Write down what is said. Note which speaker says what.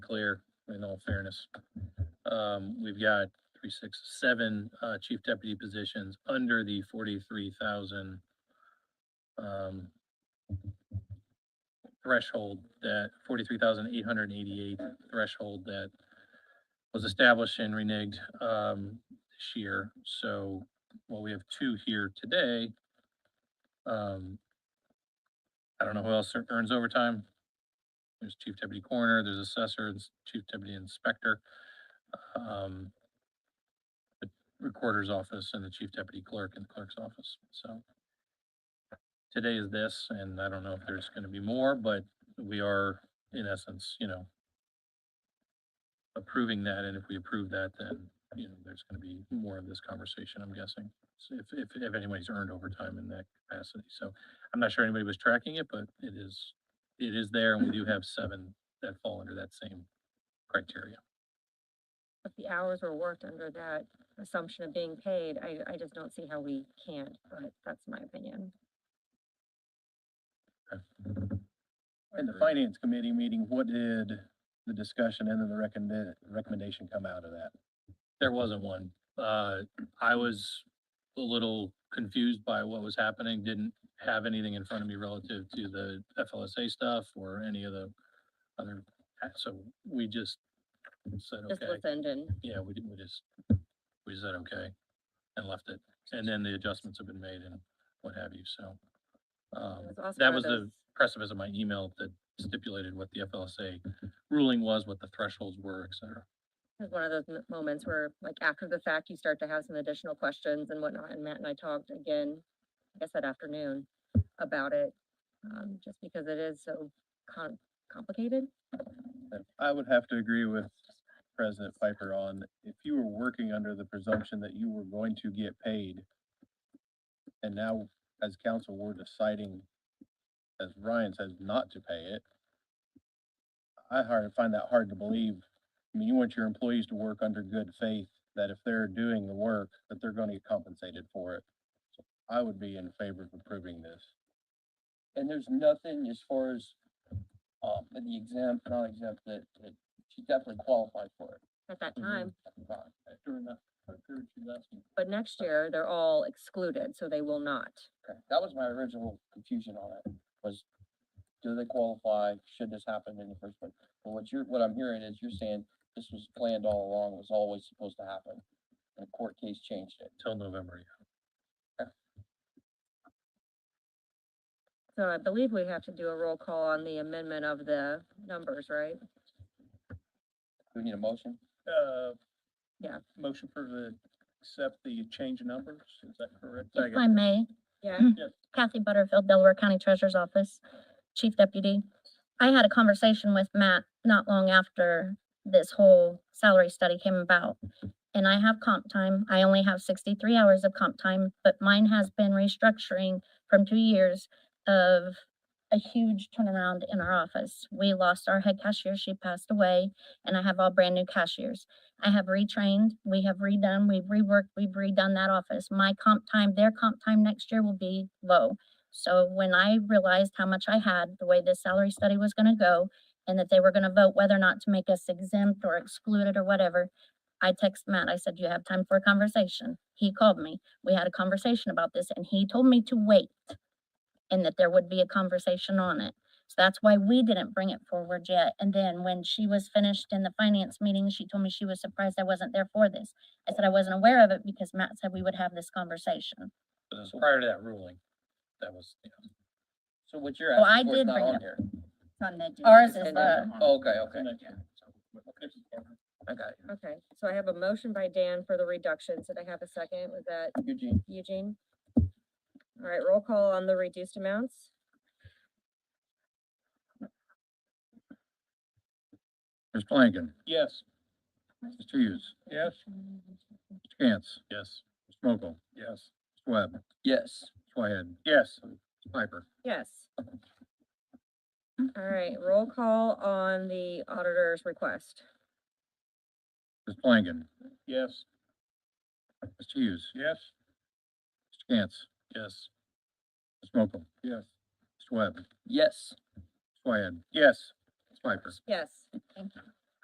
Speaker 1: clear, in all fairness. Um, we've got three, six, seven, uh, chief deputy positions under the forty-three thousand, um, threshold that, forty-three thousand eight hundred and eighty-eight threshold that was established and reneged, um, this year. So, well, we have two here today. Um, I don't know who else ear- earns overtime. There's chief deputy coroner, there's assessor, there's chief deputy inspector. um, The recorder's office and the chief deputy clerk and the clerk's office, so. Today is this, and I don't know if there's gonna be more, but we are, in essence, you know, approving that, and if we approve that, then, you know, there's gonna be more of this conversation, I'm guessing. So If, if, if anybody's earned overtime in that capacity, so I'm not sure anybody was tracking it, but it is, it is there, and we do have seven that fall under that same criteria.
Speaker 2: If the hours were worked under that assumption of being paid, I, I just don't see how we can't, but that's my opinion.
Speaker 3: In the finance committee meeting, what did the discussion and then the recommend, recommendation come out of that?
Speaker 1: There wasn't one. Uh, I was a little confused by what was happening, didn't have anything in front of me relative to the FLSA stuff or any of the other, so we just said,
Speaker 2: Just
Speaker 1: okay,
Speaker 2: listened and
Speaker 1: yeah, we did, we just, we said, okay, and left it. And then the adjustments have been made and what have you, so.
Speaker 2: it
Speaker 1: Um,
Speaker 2: was also
Speaker 1: that
Speaker 2: one of
Speaker 1: was the
Speaker 2: those-
Speaker 1: precipice of my email that stipulated what the FLSA ruling was, what the thresholds were, et cetera.
Speaker 2: It was one of those m- moments where, like, after the fact, you start to have some additional questions and whatnot, and Matt and I talked again, I guess that afternoon, about it, um, just because it is so com- complicated.
Speaker 3: I would have to agree with President Piper on, if you were working under the presumption that you were going to get paid, and now as council, we're deciding, as Ryan says, not to pay it, I hard, find that hard to believe. I mean, you want your employees to work under good faith, that if they're doing the work, that they're gonna get compensated for it. So I would be in favor of approving this.
Speaker 4: And there's nothing as far as, um, in the exempt, not exempt, that, that she definitely qualified for it.
Speaker 2: At that
Speaker 1: Mhm.
Speaker 2: time,
Speaker 4: Right, During that, during she left me.
Speaker 2: but next year, they're all excluded, so they will not.
Speaker 4: Okay, That was my original confusion on it, was do they qualify? Should this happen in the first place? But what you're, what I'm hearing is you're saying this was planned all along, was always supposed to happen. And the court case changed it.
Speaker 1: Till November, yeah.
Speaker 2: So I believe we have to do a roll call on the amendment of the numbers, right?
Speaker 4: Do we need a motion?
Speaker 3: Uh.
Speaker 2: Yeah.
Speaker 3: Motion for the, accept the change of numbers, is that correct?
Speaker 5: If I may,
Speaker 2: Yeah.
Speaker 5: Kathy Butterfield, Delaware County Treasurer's Office, Chief Deputy. I had a conversation with Matt not long after this whole salary study came about. And I have comp time. I only have sixty-three hours of comp time, but mine has been restructuring from two years of a huge turnaround in our office. We lost our head cashier. She passed away and I have all brand new cashiers. I have retrained, we have redone, we've reworked, we've redone that office. My comp time, their comp time next year will be low. So when I realized how much I had, the way this salary study was gonna go, and that they were gonna vote whether or not to make us exempt or excluded or whatever, I text Matt, I said, "Do you have time for a conversation? He called me, we had a conversation about this, and he told me to wait and that there would be a conversation on it. So that's why we didn't bring it forward yet. And then when she was finished in the finance meeting, she told me she was surprised I wasn't there for this. I said I wasn't aware of it because Matt said we would have this conversation.
Speaker 1: But
Speaker 3: uh,
Speaker 1: it was prior to that ruling, that was, you know,
Speaker 4: So what you're
Speaker 5: Well, Oh, I
Speaker 4: asking for is
Speaker 5: did
Speaker 4: not
Speaker 5: bring it
Speaker 4: on
Speaker 5: up. Uh-huh.
Speaker 4: here.
Speaker 5: Ours is
Speaker 2: Send it
Speaker 5: the
Speaker 4: Oh, Okay, okay. I got it.
Speaker 2: Okay, so I have a motion by Dan for the reductions. Did I have a second? Was that
Speaker 4: Eugene,
Speaker 2: Eugene? All right, roll call on the reduced amounts?
Speaker 6: Ms. Blanken,
Speaker 3: Yes.
Speaker 6: Mr. Hughes,
Speaker 3: Yes.
Speaker 5: uh,
Speaker 6: Mr. Cantz,
Speaker 1: yes,
Speaker 6: Mr. Mokel,
Speaker 3: Yes.
Speaker 6: Mr. Webb, Mr.
Speaker 4: yes.
Speaker 6: Whitehead,
Speaker 3: Yes.
Speaker 6: Mr. Piper.
Speaker 2: Yes. All right, roll call on the auditor's request.
Speaker 6: Ms. Blanken,
Speaker 3: Yes.
Speaker 6: Mr. Hughes,
Speaker 3: Yes.
Speaker 6: Mr. Cantz,
Speaker 1: yes,
Speaker 6: Mr. Mokel,
Speaker 3: Yes.
Speaker 6: Mr. Webb, Mr.
Speaker 4: Yes.
Speaker 6: Whitehead,
Speaker 3: Yes.
Speaker 6: Mr. Piper.
Speaker 2: Yes.